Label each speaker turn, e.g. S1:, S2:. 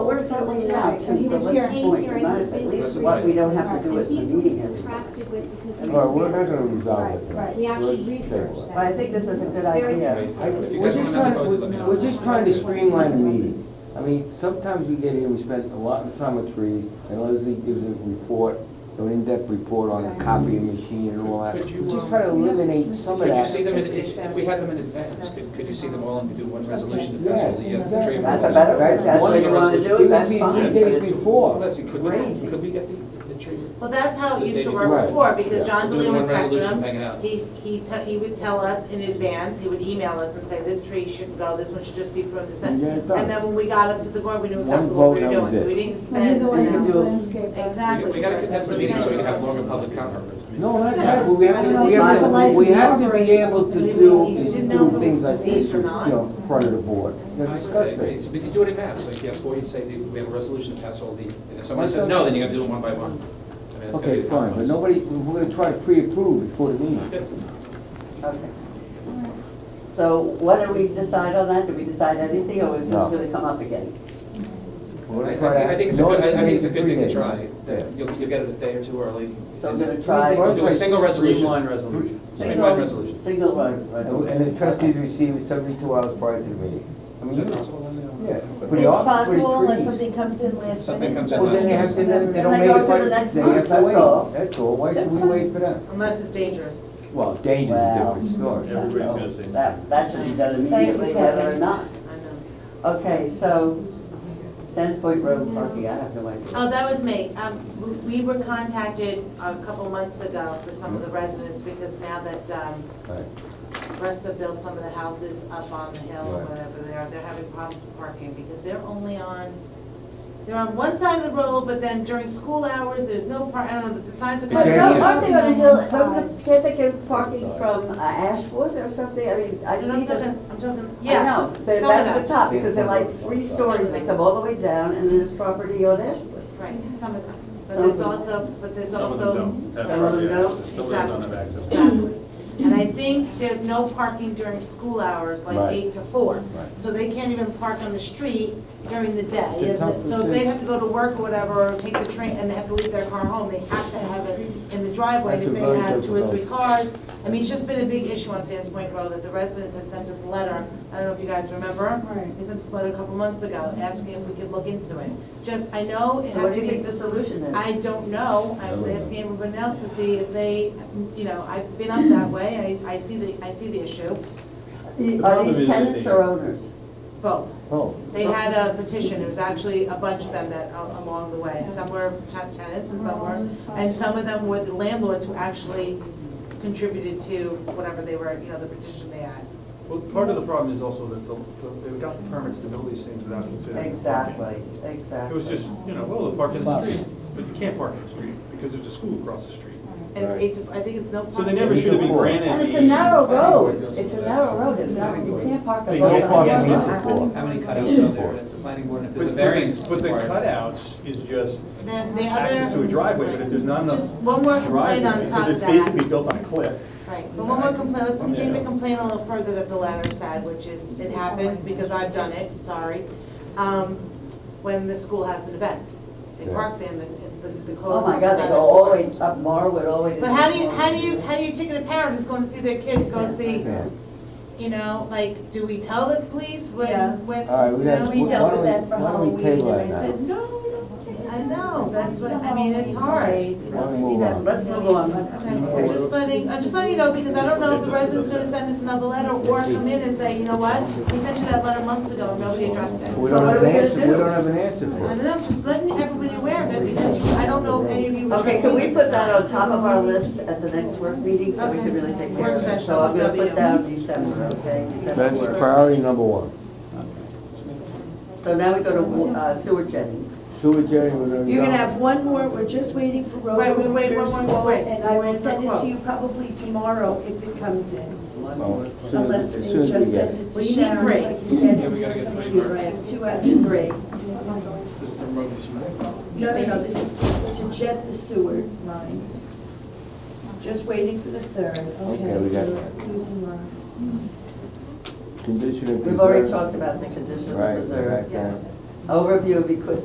S1: certainly allowed to, so
S2: He's
S1: what's the
S2: here.
S1: point? You might as at least we don't have to do it in the meeting every time.
S3: No, we're not gonna resolve it.
S2: Right, right.
S3: Let's
S4: We actually
S3: table it.
S4: researched that.
S1: But I think this is a good
S4: Very
S1: idea.
S4: good.
S5: I- If you
S3: We're
S5: guys
S3: just
S5: want another
S3: trying,
S5: call, just let me
S3: we're-
S5: know.
S3: we're just trying to streamline the meeting. I mean, sometimes we get here, we spend a lot of time with trees, and Leslie gives a report, an in-depth report on the copying machine and all that.
S5: Could you,
S3: We're
S5: um,
S3: just trying to eliminate some of
S5: Could you
S3: that.
S5: see them, in if if we had them in advance, could could you see them all and do one resolution to pass all the uh, the tree
S3: Yes,
S1: That's
S5: approvals?
S1: a better,
S3: That's
S1: if that's
S5: one
S1: what you wanna
S5: resolution.
S1: do, that's
S3: It would be
S1: fine.
S3: three days
S1: but it's-
S3: before.
S5: Leslie, could we,
S1: Crazy.
S5: could we get the, the tree?
S6: Well, that's how it used to
S3: Right.
S6: work before,
S3: Yeah.
S6: because John
S5: Just
S6: DeLeo
S5: One resolution
S6: Spectrum,
S5: hanging out.
S6: he's, he, te- he would tell us in advance, he would email us and say, this tree shouldn't go, this one should just be from this.
S3: And
S6: end."
S3: get it
S6: And then
S3: done.
S6: when we got up to the board, we knew
S3: One
S6: exactly what we
S3: vote,
S6: were
S3: that was
S6: doing,
S3: it.
S6: we didn't
S2: And he's
S6: spend.
S2: the one
S1: You can
S2: that's
S1: do it.
S2: landscape.
S5: We-
S6: Exactly.
S5: We gotta condense the meeting so we can have longer public comment.
S3: No, that's right, but we have
S2: I
S3: to,
S2: don't
S3: we
S2: know if
S3: have
S2: it's a
S3: to, we
S2: license
S3: have
S2: to
S3: to be able to
S6: operate.
S3: do,
S6: You
S3: is
S6: didn't know
S3: do
S6: if it
S3: things
S6: was
S3: like this,
S6: diseased or
S3: you
S6: not.
S3: know, in front of the board, you know, discuss it.
S5: But you do it in mass, like, yeah, before you say, the- we have a resolution to pass all the, and if someone says no, then you gotta do it one by one. I mean, that's gotta
S3: Okay,
S5: be a
S3: fine, but
S5: compromise.
S3: nobody, we're gonna try to pre-approve before the meeting.
S5: Okay.
S1: Okay. So what do we decide on that? Do we decide anything, or is this
S3: No.
S1: gonna come up again?
S3: We're
S5: I, I
S3: gonna
S5: think,
S3: try to-
S5: I think it's a good, I I think it's a good thing to
S3: Three
S5: try,
S3: days.
S5: that you'll, you'll get it a day or two early.
S1: So I'm gonna
S5: We'll
S1: try.
S5: do a single resolution.
S7: Streamline resolution.
S5: Streamline resolution.
S1: Single one,
S3: Yeah.
S1: right.
S3: And the trustees receive it seventy-two hours prior to the meeting. I
S5: Is
S3: mean,
S5: that possible? I don't know.
S3: yeah, pretty
S2: It's
S3: off, pretty
S2: possible unless
S3: trees.
S2: something comes in last
S5: Something
S2: minute.
S5: comes in
S3: Well, then they have to, then they don't make it,
S1: Then they go to
S3: by-
S1: the next
S3: they
S1: month,
S3: have to
S1: that's all.
S3: wait, that's all, why should
S1: That's
S3: we
S1: fine.
S3: wait for them?
S6: Unless it's dangerous.
S3: Well, danger is a
S1: Wow.
S3: different story.
S7: Everybody's gonna say.
S1: That, that should be done immediately, whether or not.
S6: I know.
S1: Okay, so Sands Point Road parking, I have no idea.
S6: Oh, that was me. Um, we- we were contacted a couple months ago for some of the residents, because now that, um,
S3: Right.
S6: Resta built some of the houses up on the hill, or
S3: Right.
S6: whatever they are, they're having problems with parking, because they're only on, they're on one side of the road, but then during school hours, there's no par, I don't know, the signs are.
S3: But
S1: But
S3: Yeah.
S1: no,
S3: yeah.
S1: aren't they gonna do, doesn't the- can't they get parking from uh, Ashwood or something? I mean, I
S6: And
S1: see
S6: I'm
S1: them.
S6: talking, I'm talking,
S1: I
S6: yes,
S1: know,
S6: some of
S1: but that's the
S6: them,
S1: top, because they're like three stories, they come all the way down, and there's property on Ashwood.
S6: right, some of them, but
S1: Some of
S6: there's
S1: them.
S6: also, but there's
S7: Some of
S6: also.
S7: them don't. That's
S1: Some of them
S7: right, yeah.
S1: don't?
S7: Some of them don't have access.
S6: Exactly. And I think there's no parking during school hours, like
S3: Right.
S6: eight to four.
S3: Right.
S6: So they can't even park on the street during the day.
S3: It's a tough-
S6: So if they have to go to work or whatever, or take the train and they have to leave their car home, they have to have it in the driveway. And
S3: That's
S6: If
S3: a
S6: they
S3: very
S6: have two or three
S3: difficult-
S6: cars, I mean, it's just been a big issue on Sands Point Road that the residents had sent us a letter. I don't know if you guys remember.
S2: Right.
S6: They sent us a letter a couple months ago asking if we could look into it. Just, I know it
S1: So
S6: has
S1: what
S6: to
S1: do you
S6: be
S1: think the solution is?
S6: I don't know, I'm asking everyone else to see if they, you know, I've been up that way, I, I see the, I see the issue,
S1: The- Are
S7: problem
S1: these
S7: is that
S1: tenants
S7: they-
S1: or owners?
S6: both.
S3: Oh,
S6: They had a petition, it was actually a bunch of them that, a- along the way, some were ten- tenants and some were, and some of them were the landlords who actually contributed to whatever they were, you know, the petition they had.
S8: Well, part of the problem is also that the- the- they got the permits to build these things without considering. the
S1: Exactly,
S8: parking. It
S1: exactly.
S8: was just, you know, well, they'll park in the street, but you can't park in the street because there's a school across the street.
S6: And it's eight to, I think it's no.
S8: So they never should have been granted.
S1: And it's a
S8: these-
S1: narrow road, it's a narrow road, it's not, you can't park a
S8: They
S1: boat
S3: no
S8: don't
S1: on
S3: parking
S1: that
S3: needs
S1: road.
S3: a floor.
S5: How many cutouts are there, it's the planning board, and if
S8: But-
S5: there's a
S8: but the-
S5: variance.
S8: But the
S5: required-
S8: cutouts is just
S6: The, the
S8: access to a
S6: other,
S8: driveway, but if there's not enough
S6: just one more complaint on
S8: driveway,
S6: top
S8: because
S6: of
S8: it's
S6: that.
S8: basically built on a cliff.
S6: Right, but one more complaint, let's continue to complain a little further that the latter said, which is, it happens because I've done it, sorry. Um, When the school has an event, they park there and the- it's the, the code.
S1: Oh my God, they go all the way up Marwood, all the way to.
S6: But how do you, how do you, how do you ticket a parent who's going to see their kids go see,
S3: yeah.
S6: you know, like, do we tell the police
S2: Yeah.
S6: when, when?
S3: All right, we
S6: you know,
S3: have,
S2: oh, we
S3: why
S2: dealt with
S3: don't we,
S2: that for
S3: why don't
S2: Halloween,
S3: we table that
S6: I
S3: now?
S6: said, no, we don't take, I know, that's what, I mean, it's hard.
S3: Why don't we move on?
S1: Let's move on.
S6: Okay, I'm just letting, I'm just letting you know, because I don't know if the resident's gonna send us another letter or come in and say, you know what? We sent you that letter months ago, and nobody addressed it.
S3: We
S1: So
S3: don't
S1: what
S3: have
S1: are
S3: an
S1: we gonna
S3: answer, we
S1: do?
S3: don't have an answer
S6: I
S3: for it.
S6: don't know, I'm just letting everybody aware of it, because you, I don't know if any of you were.
S1: Okay, so we
S6: trustees at
S1: put
S6: the
S1: that
S6: time.
S1: on top of our list at the next work meeting, so we can really take care of
S6: Work
S1: it.
S6: session,
S1: So I'm gonna
S6: W.
S1: put down December, okay? December
S3: That's
S1: work.
S3: priority number one.
S1: So now we go to uh, sewer jetting.
S3: Sewer jetting, we're gonna.
S2: You're gonna have one more, we're just waiting for road
S6: Wait, wait, wait,
S2: warriors
S6: one
S2: quote,
S6: more, wait.
S2: And I will
S6: Where's the
S2: send it
S6: quote?
S2: to you probably tomorrow if it comes in,
S3: Oh, as soon as-
S2: unless
S3: as
S2: they
S3: soon as we
S2: just
S3: get
S2: sent
S3: it.
S2: it
S6: We
S2: to
S6: need
S2: Sharon.
S6: three.
S2: like you did.
S5: Yeah, we gotta get three,
S2: You're
S5: Mark.
S2: right, Two out of three.
S5: This is the road issue.
S2: No, no, no, this is to jet the sewer lines. Just waiting for the third, okay.
S3: Okay, we got
S2: we're Losing our.
S3: Condition of.
S1: We've already
S3: preserve.
S1: talked about the conditional
S3: Right,
S1: reserve.
S3: right, right.
S6: Yes.
S1: Overview of equipment